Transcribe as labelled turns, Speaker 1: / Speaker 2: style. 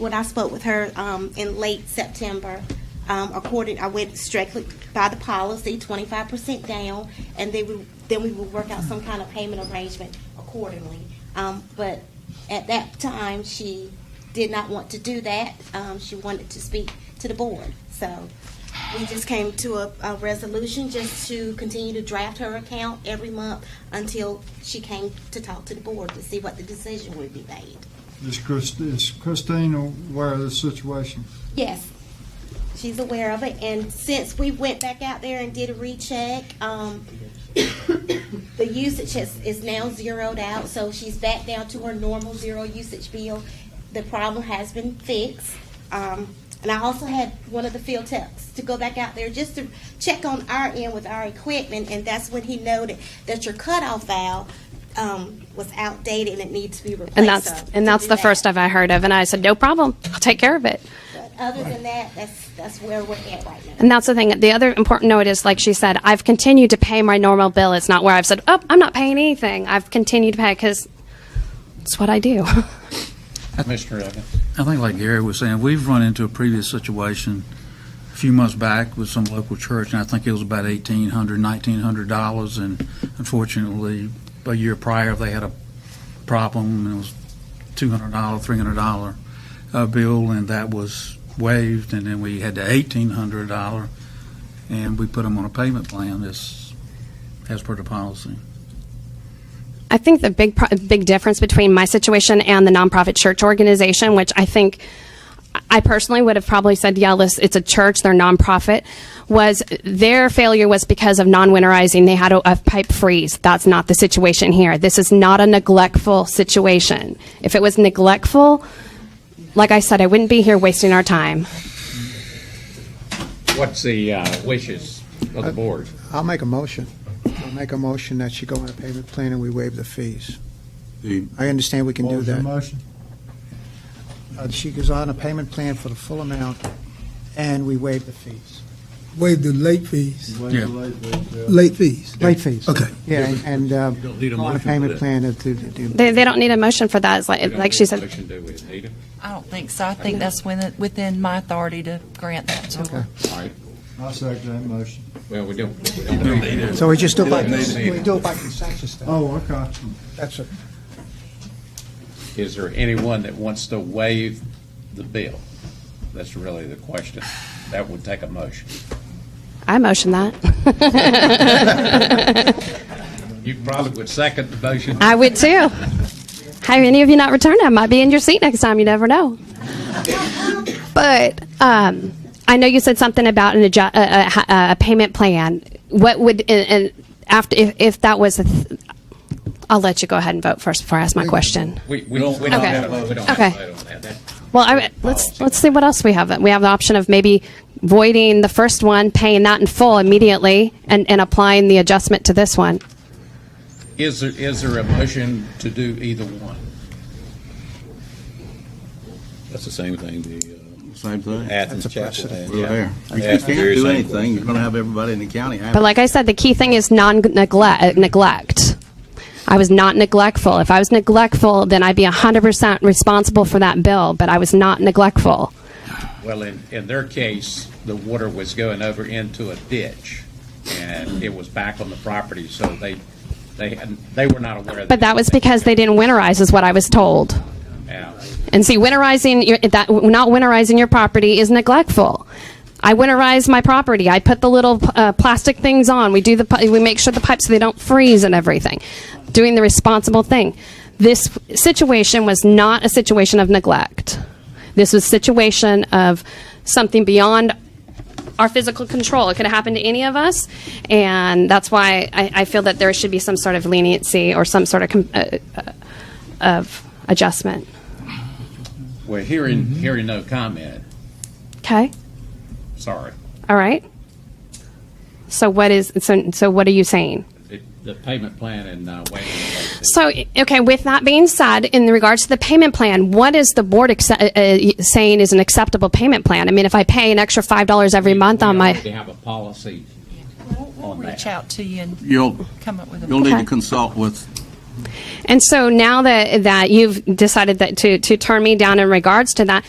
Speaker 1: when I spoke with her um, in late September, um, according, I went strictly by the policy, twenty-five percent down, and they would, then we would work out some kind of payment arrangement accordingly. Um, but at that time, she did not want to do that. Um, she wanted to speak to the board. So we just came to a, a resolution just to continue to draft her account every month until she came to talk to the board to see what the decision would be made.
Speaker 2: Is Christ- is Christine aware of the situation?
Speaker 1: Yes, she's aware of it, and since we went back out there and did a recheck, um, the usage has, is now zeroed out, so she's back down to her normal zero usage bill. The problem has been fixed. Um, and I also had one of the field techs to go back out there just to check on our end with our equipment, and that's when he noted that your cutoff valve, um, was outdated and it needs to be replaced.
Speaker 3: And that's
Speaker 1: So to
Speaker 3: and that's
Speaker 1: do
Speaker 3: the
Speaker 1: that-
Speaker 3: first I've I heard of. And I said, no problem, I'll take care of it.
Speaker 1: But other than that, that's, that's where we're at right now.
Speaker 3: And that's the thing. The other important note is, like she said, I've continued to pay my normal bill. It's not where I've said, oh, I'm not paying anything. I've continued to pay because it's what I do.
Speaker 4: Mr. Evans.
Speaker 5: I think like Gary was saying, we've run into a previous situation a few months back with some local church, and I think it was about $1,800, $1,900, and unfortunately, a year prior, they had a problem, and it was $200, $300 uh, bill, and that was waived, and then we had the $1,800, and we put them on a payment plan as, as per the policy.
Speaker 3: I think the big pro- big difference between my situation and the nonprofit church organization, which I think I personally would have probably said, yeah, let's- it's a church, they're nonprofit, was their failure was because of non-winterizing. They had a, a pipe freeze. That's not the situation here. This is not a neglectful situation. If it was neglectful, like I said, I wouldn't be here wasting our time.
Speaker 4: What's the uh, wishes of the board?
Speaker 6: I'll make a motion. I'll make a motion that she go on a payment plan and we waive the fees.
Speaker 7: The-
Speaker 6: I understand we can
Speaker 2: What
Speaker 6: do
Speaker 2: was your
Speaker 6: that.
Speaker 2: motion?
Speaker 6: Uh, She goes on a payment plan for the full amount and we waive the fees.
Speaker 8: waive the late fees,
Speaker 2: Wait
Speaker 5: Yeah.
Speaker 2: till late, wait till-
Speaker 8: late fees.
Speaker 6: Late fees.
Speaker 8: Okay.
Speaker 6: Yeah, and, and uh,
Speaker 7: don't need a
Speaker 6: go on a
Speaker 7: motion for
Speaker 6: payment
Speaker 7: that.
Speaker 6: plan to, to do.
Speaker 3: They, they don't need a motion for that. It's like, Uh, like she said,
Speaker 4: Motion, do we, Anita?
Speaker 9: I don't think so. I think that's within, within my authority to grant that to her.
Speaker 4: All right,
Speaker 2: I second that motion.
Speaker 4: well, we don't.
Speaker 6: So we just do it by,
Speaker 4: They-
Speaker 6: we do it by consensus then.
Speaker 2: Oh, okay.
Speaker 6: That's it.
Speaker 4: Is there anyone that wants to waive the bill? That's really the question. That would take a motion.
Speaker 3: I motion that.
Speaker 4: You probably would second the motion.
Speaker 3: I would too. Have any of you not returned? I might be in your seat next time. You never know. But um, I know you said something about an adju- a, a, a payment plan. What would and, and after if, if that was? A th- I'll let you go ahead and vote first before I ask my question.
Speaker 4: We, we don't, we don't
Speaker 3: Okay.
Speaker 4: have, a- we don't have
Speaker 3: Okay.
Speaker 4: a vote on that. That-
Speaker 3: Well, I, let's let's see what else we have. We have the option of maybe voiding the first one, paying that in full immediately, and, and applying the adjustment to this one.
Speaker 4: Is there, is there a motion to do either one?
Speaker 10: That's the same thing, the, uh,
Speaker 7: Same thing.
Speaker 10: Athens Chapel
Speaker 6: precedent.
Speaker 10: had.
Speaker 7: We're there. If
Speaker 10: Yeah,
Speaker 7: you
Speaker 10: it's
Speaker 7: can't
Speaker 10: very
Speaker 7: do
Speaker 10: simple.
Speaker 7: anything, you're going to have everybody in the county happy.
Speaker 3: But like I said, the key thing is non neglect. uh, Neglect. I was not neglectful. If I was neglectful, then I'd be 100% responsible for that bill, but I was not neglectful.
Speaker 4: Well, in, in their case, the water was going over into a ditch, and it was back on the property, so they, they, hadn't- they were not aware of that.
Speaker 3: But that was because they didn't winterize, is what I was told.
Speaker 4: Yeah.
Speaker 3: And see, winterizing your, that not winterizing your property is neglectful. I winterize my property. I put the little uh, plastic things on. We do the pi- we make sure the pipes so they don't freeze and everything. Doing the responsible thing. This situation was not a situation of neglect. This was a situation of something beyond our physical control. It could have happened to any of us, and that's why I, I feel that there should be some sort of leniency or some sort of com- uh, uh, of adjustment.
Speaker 4: Well, hearing, hearing no comment,
Speaker 3: Okay.
Speaker 4: sorry.
Speaker 3: All right. So what is so so what are you saying?
Speaker 4: It- The payment plan and uh, waiving. the late fee.
Speaker 3: So okay, with that being said, in regards to the payment plan, what is the board acce- uh, uh, saying is an acceptable payment plan? I mean, if I pay an extra five dollars every month
Speaker 4: We
Speaker 3: on my
Speaker 4: already have a policy
Speaker 9: We'll
Speaker 4: on that.
Speaker 9: reach out to you and
Speaker 7: You'll,
Speaker 9: come up with a.
Speaker 7: you'll need
Speaker 3: Okay.
Speaker 7: to consult with
Speaker 3: And so now that that you've decided that to to turn me down in regards to that,